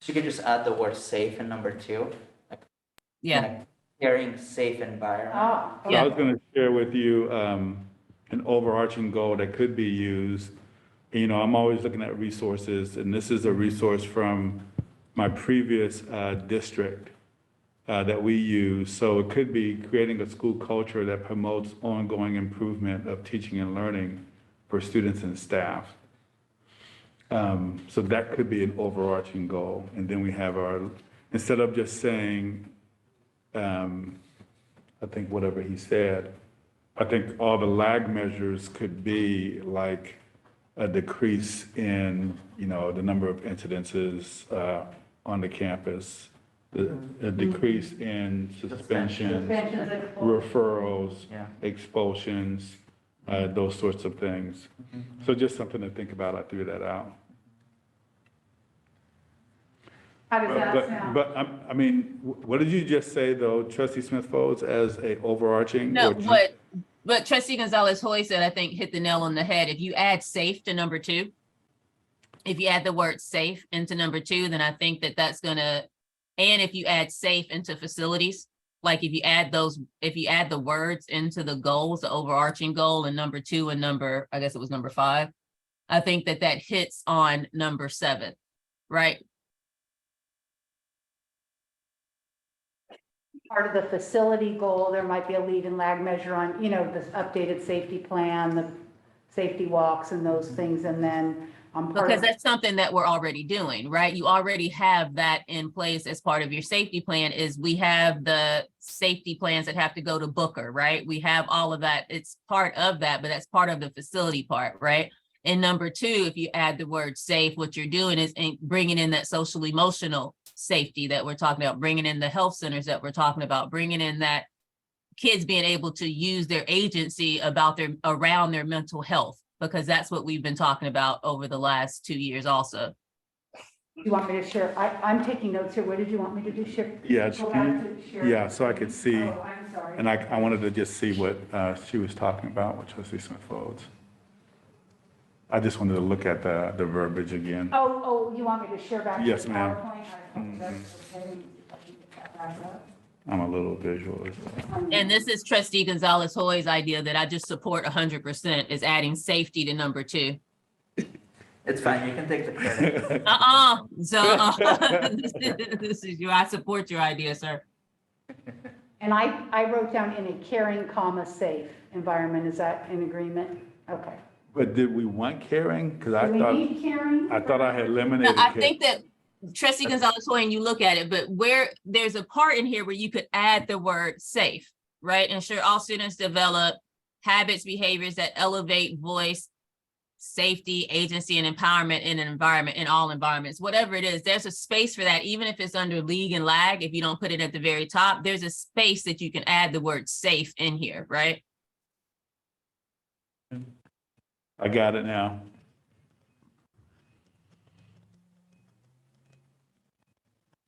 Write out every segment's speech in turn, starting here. She could just add the word safe in number two. Yeah, like, Caring, safe environment. Ah, Yeah. okay. I was going to share with you um, an overarching goal that could be used. You know, I'm always looking at resources, and this is a resource from my previous uh, district uh, that we use. So it could be creating a school culture that promotes ongoing improvement of teaching and learning for students and staff. Um, So that could be an overarching goal. And then we have our, instead of just saying, um, I think whatever he said, I think all the lag measures could be like a decrease in, you know, the number of incidences uh, on the campus, the- a decrease in suspension, Suspensions and- referrals, Yeah. expulsions, uh, those sorts of things. So just something to think about, I threw that out. How does that But, sound? but, I'm- I mean, wh- what did you just say, though, trustee Smith Folds, as a overarching? no, or ju- what, what trustee Gonzalez Hoy said, I think hit the nail on the head. If you add safe to number two, if you add the word safe into number two, then I think that that's gonna, and if you add safe into facilities, like if you add those, if you add the words into the goals, the overarching goal in number two and number, I guess it was number five, I think that that hits on number seven, right? Part of the facility goal, there might be a lead and lag measure on, you know, this updated safety plan, the safety walks and those Mm-hmm. things, and then on part Because of, that's something that we're already doing, right? You already have that in place as part of your safety plan is we have the safety plans that have to go to Booker, right? We have all of that. It's part of that, but that's part of the facility part, right? And number two, if you add the word safe, what you're doing is in- bringing in that social emotional safety that we're talking about, bringing in the health centers that we're talking about, bringing in that kids being able to use their agency about their around their mental health because that's what we've been talking about over the last two years also you want me to share, I, I'm taking notes here, what did you want me to do, share? Yeah, Go back to share. yeah, so I could see, Oh, I'm sorry. and I, I wanted to just see what uh, she was talking about with trustee Smith Folds. I just wanted to look at the, the verbiage again. Oh, oh, you want me to share back? to Yes, the ma'am. Mm-hmm. PowerPoint? I think that's okay. Let me get that back up. I'm a little visual as well. and this is trustee gonzalez hoy's idea that i just support 100% is adding safety to number two It's fine, you can take the credit. uh-uh so this, is, this is you i support your idea sir And I, I wrote down in a caring, comma, safe environment, is that in agreement? Okay. But did we want caring? Because I Do we thought, need caring? I thought I had No, eliminated. I care- think that trustee Gonzalez Hoy, and you look at it, but where, there's a part in here where you could add the word safe, right? Ensure all students develop habits, behaviors that elevate voice, safety, agency, and empowerment in an environment, in all environments, whatever it is, there's a space for that, even if it's under league and lag, if you don't put it at the very top, there's a space that you can add the word safe in here, right? I got it now.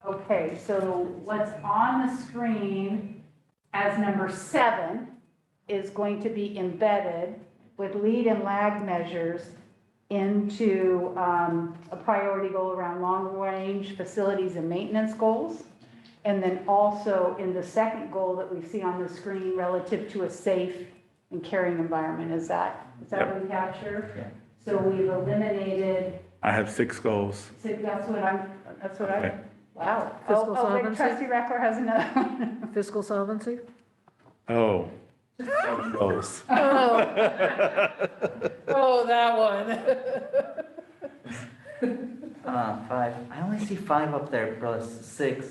Okay, so what's on the screen as number seven is going to be embedded with lead and lag measures into um, a priority goal around long-range facilities and maintenance goals. And then also in the second goal that we see on the screen relative to a safe and caring environment, is that, is that what we capture? So we've eliminated I have six goals. so that's what I'm, that's what Okay. I, wow. Oh, Fiscal oh, wait, solvency? trustee Reckler has another one. Fiscal solvency? Oh. Seven Goals. Oh, that one. Uh, five, I only see five up there, plus six.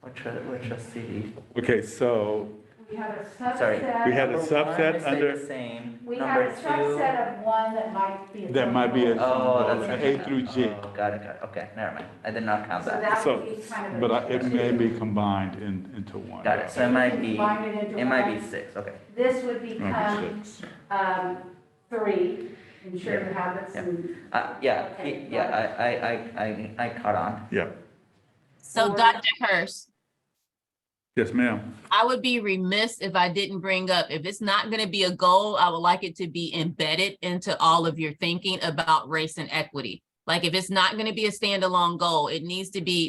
Which, which trustee? Okay, so We have a Sorry. we subset, had a Number one, subset I say under- the Same, we have a number two. subset of one that might be. a that might be a. total. Oh, that's. seven goals, A through G. Oh, Got it, got it, okay, never mind, I did not count So that. that So, would be kind of. a- but I- it may be combined in, into one. Got it, so it might be, Combine it into it might be one. six, okay. This would Number become, six. um, three, ensure Yeah. your habits Yeah. and. Uh, yeah, Okay, yeah, got I, I, I, I, I caught on. Yeah, So Or- Dr. Hurst, yes, ma'am. I would be remiss if I didn't bring up, if it's not going to be a goal, I would like it to be embedded into all of your thinking about race and equity. Like if it's not going to be a standalone goal, it needs to be